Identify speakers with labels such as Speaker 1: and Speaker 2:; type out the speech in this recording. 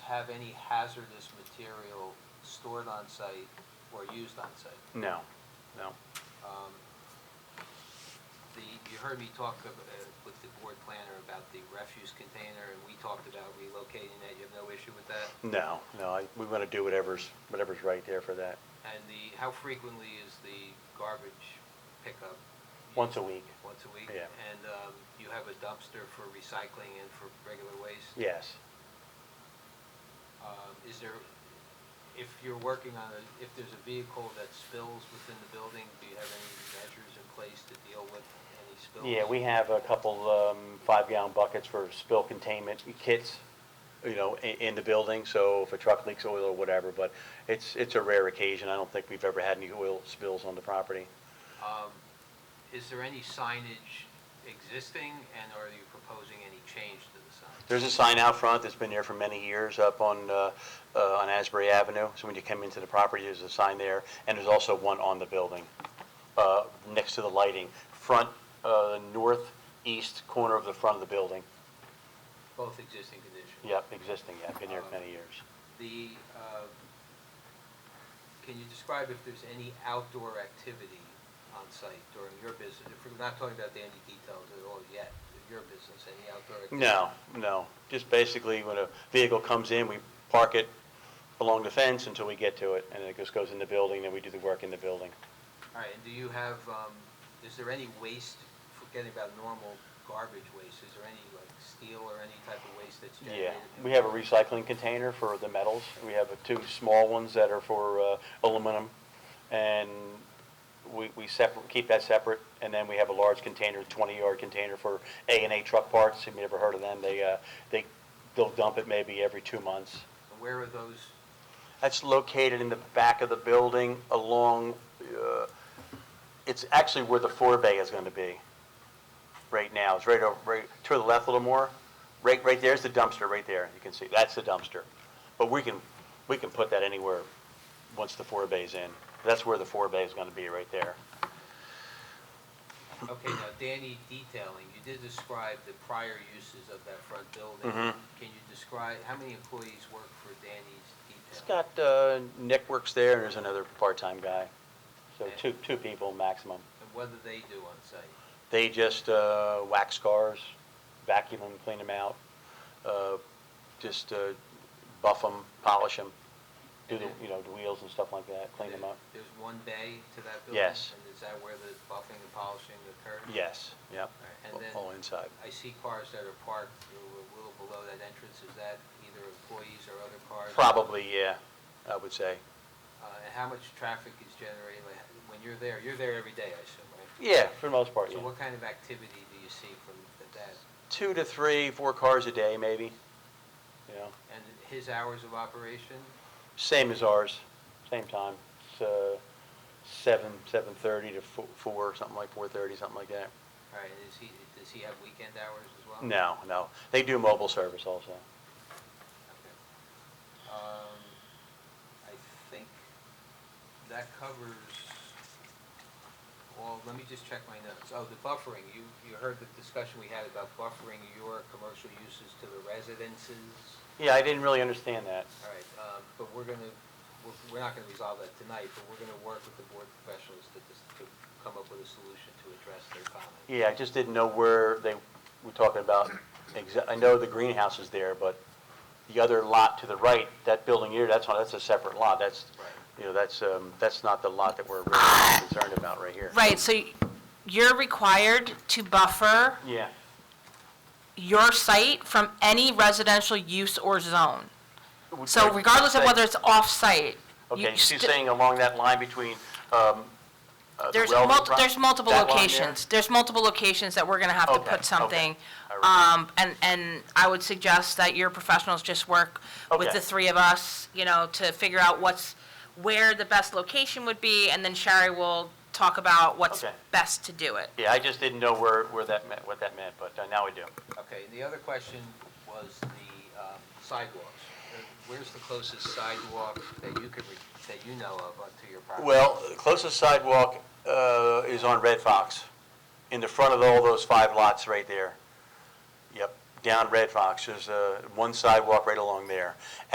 Speaker 1: have any hazardous material stored on site or used on site.
Speaker 2: No, no.
Speaker 1: Um, The, you heard me talk of, uh, with the board planner about the refuse container, and we talked about relocating that, you have no issue with that?
Speaker 2: No, no, I- we want to do whatever's, whatever's right there for that.
Speaker 1: And the, how frequently is the garbage pickup?
Speaker 2: Once a week,
Speaker 1: Once a week?
Speaker 2: Yeah.
Speaker 1: And um, you have a dumpster for recycling and for regular waste?
Speaker 2: yes.
Speaker 1: Um, Is there, if you're working on a, if there's a vehicle that spills within the building, do you have any measures in place to deal with any spills?
Speaker 2: Yeah, we have a couple um, five-gallon buckets for spill containment kits, you know, i- in the building, so if a truck leaks oil or whatever, but it's, it's a rare occasion. I don't think we've ever had any oil spills on the property.
Speaker 1: Um, Is there any signage existing, and are you proposing any change to the sign?
Speaker 2: There's a sign out front that's been there for many years up on, uh, uh, on Asbury Avenue. So when you come into the property, there's a sign there, and there's also one on the building, uh, next to the lighting, front, uh, northeast corner of the front of the building.
Speaker 1: Both existing conditions?
Speaker 2: Yep, existing, yeah, been there for many years.
Speaker 1: The, uh, can you describe if there's any outdoor activity on site during your business? If we're not talking about any details at all yet, your business, any outdoor activity?
Speaker 2: No, no, just basically when a vehicle comes in, we park it along the fence until we get to it, and then it just goes in the building, then we do the work in the building.
Speaker 1: All right, and do you have, um, is there any waste, forgetting about normal garbage waste, is there any like steel or any type of waste that's
Speaker 2: Yeah,
Speaker 1: generated?
Speaker 2: we have a recycling container for the metals. We have uh, two small ones that are for uh, aluminum, and we, we separate, keep that separate. And then we have a large container, twenty-yard container for A and A truck parts. Have you ever heard of them? They, uh, they, they'll dump it maybe every two months.
Speaker 1: And Where are those,
Speaker 2: That's located in the back of the building along, uh, it's actually where the forebay is going to be right now. It's right over, right to the left a little more. Right, right there's the dumpster, right there. You can see, that's the dumpster. But we can, we can put that anywhere once the forebay's in. That's where the forebay is going to be, right there.
Speaker 1: okay, now Danny detailing, you did describe the prior uses of that front building.
Speaker 2: Mhm.
Speaker 1: Can you describe, how many employees work for Danny's
Speaker 2: It's
Speaker 1: detailing?
Speaker 2: got, uh, Nick works there, and there's another part-time guy. So two, two people maximum.
Speaker 1: And what do they do on site?
Speaker 2: They just uh, wax cars, vacuum them, clean them out, uh, just uh, buff them, polish them, do the, you know, the wheels and stuff like that, clean them up.
Speaker 1: There's one bay to that building?
Speaker 2: Yes.
Speaker 1: And is that where the buffing and polishing occurs?
Speaker 2: Yes, yep,
Speaker 1: And then-
Speaker 2: all inside.
Speaker 1: I see cars that are parked a little below that entrance, is that either employees or other cars?
Speaker 2: Probably, yeah, I would say.
Speaker 1: Uh, And how much traffic is generated like, when you're there? You're there every day, I assume, right?
Speaker 2: Yeah, for the most part,
Speaker 1: So
Speaker 2: yeah.
Speaker 1: what kind of activity do you see from th- that?
Speaker 2: Two to three, four cars a day, maybe, you know,
Speaker 1: And his hours of operation?
Speaker 2: same as ours, same time. It's uh, seven, 7:30 to fo- four, something like 4:30, something like that.
Speaker 1: All right, is he, does he have weekend hours as well?
Speaker 2: No, no, they do mobile service also.
Speaker 1: Okay. Um, I think that covers all, let me just check my notes. Oh, the buffering, you, you heard the discussion we had about buffering your commercial uses to the residences.
Speaker 2: Yeah, I didn't really understand that.
Speaker 1: All right, um, but we're gonna, we're, we're not gonna resolve that tonight, but we're gonna work with the board professionals to, dis- to come up with a solution to address their comment.
Speaker 2: Yeah, I just didn't know where they were talking about. exa- I know the greenhouse is there, but the other lot to the right, that building here, that's, not- that's a separate lot. That's, you know, that's, um, that's not the lot that we're really concerned about right here.
Speaker 3: Right, so you're required to buffer
Speaker 2: Yeah,
Speaker 3: your site from any residential use or zone.
Speaker 2: Would-
Speaker 3: So
Speaker 2: would-
Speaker 3: regardless of whether it's off-site. you
Speaker 2: Okay, she's
Speaker 3: sti-
Speaker 2: saying along that line between, um, uh, the
Speaker 3: There's
Speaker 2: railroad
Speaker 3: multiple,
Speaker 2: pro-
Speaker 3: there's multiple
Speaker 2: that line there?
Speaker 3: locations. There's multiple locations that we're gonna have to
Speaker 2: Okay, okay.
Speaker 3: put something.
Speaker 2: I remember.
Speaker 3: Um, and, and I would suggest that your professionals just work with
Speaker 2: Okay.
Speaker 3: the three of us, you know, to figure out what's, where the best location would be, and then Sherry will talk about what's
Speaker 2: Okay.
Speaker 3: best to do it.
Speaker 2: Yeah, I just didn't know where, where that meant, what that meant, but uh, now I do.
Speaker 1: Okay, and the other question was the um, sidewalks. Uh, Where's the closest sidewalk that you could, re- that you know of onto your property?
Speaker 2: Well, the closest sidewalk uh, is on Red Fox, in the front of all those five lots right there. Yep, down Red Fox, there's uh, one sidewalk right along there.